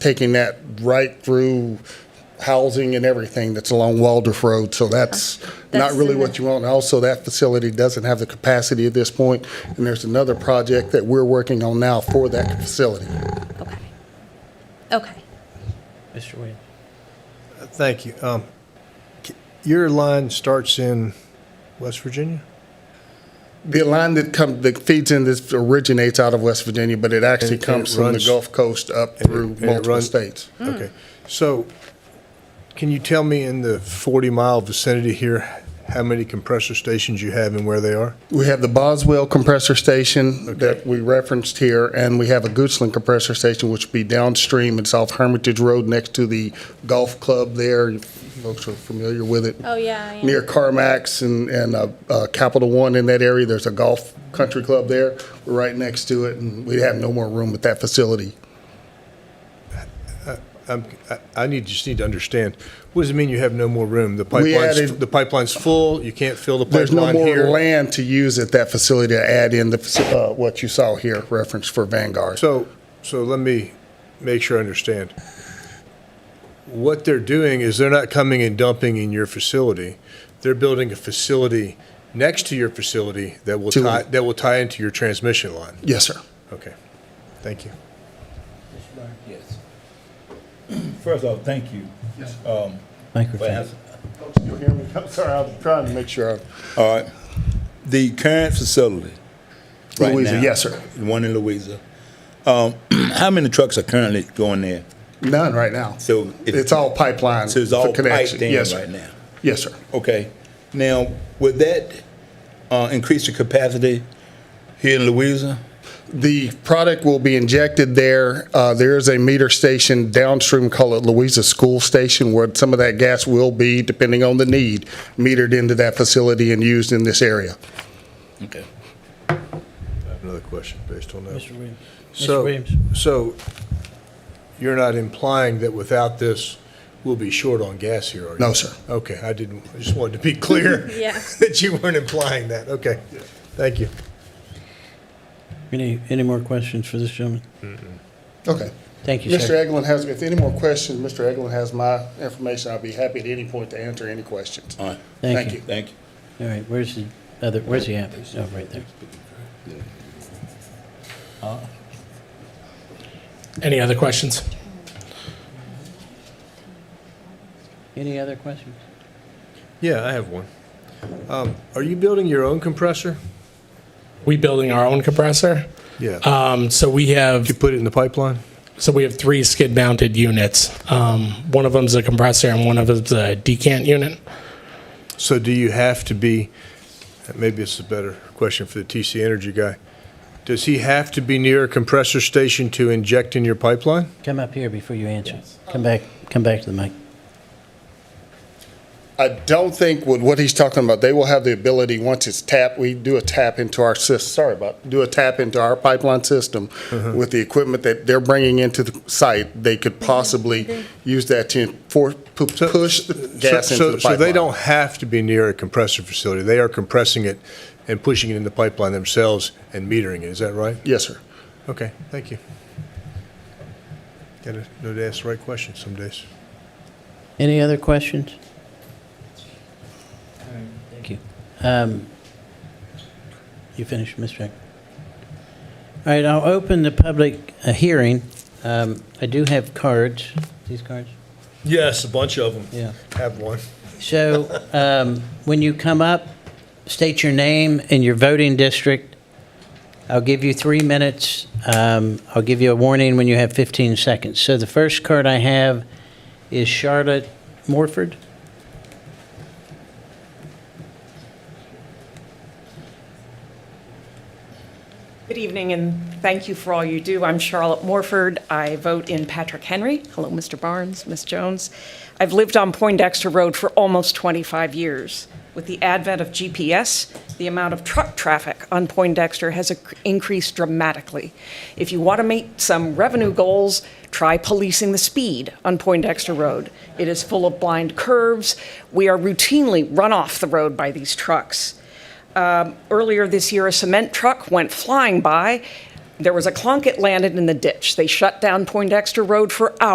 taking that right through housing and everything that's along Waldorf Road. So that's not That's really in what the- you want. And Also, that facility doesn't have the capacity at this point, And there's another project that we're working on now for that facility. Okay. Okay. Mr. Williams. Thank you. Um, c- your line starts in West Virginia? The line that comes, that feeds in this originates out of West Virginia, but it actually And- and it comes from the runs- Gulf Coast up and it- through and it multiple runs- states. Okay. So, can you tell me in the 40 mile vicinity here how many compressor stations you have and where they are? We have the Boswell compressor station that we referenced here, and we have a Goochland compressor station, which would be downstream. It's off Hermitage Road next to the golf club there. You Folks are familiar with it. Oh, yeah, I am. Near Carmax and, and uh, uh, Capital One in that area, there's a golf country club there. We're right next to it, and we have no more room at that facility. I'm, I, I need just need to understand. What does it mean you have no more room? The We pipeline's, added- the pipeline's full. You can't fill the pipeline There's no more here. land to use at that facility to add in the, faci- uh, what you saw here, reference for Vanguard. So, so let me make sure I understand. What they're doing is they're not coming and dumping in your facility. They're building a facility next to your facility that will To- tie, that will tie into your transmission line. Yes, sir. Okay, thank you. Yes. First off, thank you. Um, for Microphone. answer- You hear me? I'm sorry, I'm trying to make sure. All right. The current facility. right Louisa, now, yes, sir. The one in Louisa. Um, how many trucks are currently going there? None right now. So it- It's all pipeline. So it's for all connection. piped in Yes, sir. right now. Yes, sir. Okay. Now, would that uh, increase the capacity here in Louisa? The product will be injected there. Uh, There is a meter station downstream, call it Louisa School Station, where some of that gas will be, depending on the need, metered into that facility and used in this area. Okay. I have Another question based on that. Mr. Williams. Mr. So, Williams. so you're not implying that without this, we'll be short on gas here, are you? No, sir. Okay, I didn't, I just wanted to be clear. Yeah. That you weren't implying that. Okay, thank you. Any, any more questions for this gentleman? Okay. Thank you, Mr. sir. Eglin has, if any more questions, Mr. Eglin has my information. I'll be happy at any point to answer any questions. All right. Thank you. Thank you. All right, where's the other, where's the app? Oh, right there. Any other questions? Any other questions? Yeah, I have one. Um, Are you building your own compressor? We building our own compressor. Yeah. Um, so we have You put it in the pipeline? so we have three skid mounted units. Um, one of them's a compressor and one of them's a decant unit. So do you have to be, maybe it's a better question for the TC Energy guy. Does he have to be near a compressor station to inject in your pipeline? Come up here before you answer. Come back, come back to the mic. I don't think with what he's talking about, they will have the ability, once it's tapped, we do a tap into our system, sorry about, do a tap into our pipeline system Mm-hmm. with the equipment that they're bringing into the site, they could possibly use that to for, pu- So- push the gas So- into the so- So they pipeline. don't have to be near a compressor facility. They are compressing it and pushing it in the pipeline themselves and metering it. Is that right? Yes, sir. Okay, thank you. Got to know to ask the right questions some days. Any other questions? Thank you. Um, You finished, Mr. Jack? All right, I'll open the public uh, hearing. Um, I do have cards, these cards. Yes, a bunch of them. Yeah. Have one. So um, when you come up, state your name and your voting district. I'll give you three minutes. Um, I'll give you a warning when you have 15 seconds. So the first card I have is Charlotte Morford. Good evening, and thank you for all you do. I'm Charlotte Morford. I vote in Patrick Henry. Hello, Mr. Barnes, Ms. Jones. I've lived on Poindexter Road for almost 25 years. With the advent of GPS, the amount of truck traffic on Poindexter has ac- increased dramatically. If you want to meet some revenue goals, try policing the speed on Poindexter Road. It is full of blind curves. We are routinely run off the road by these trucks. Um, earlier this year, a cement truck went flying by. There was a clunk, it landed in the ditch. They shut down Poindexter Road for hours.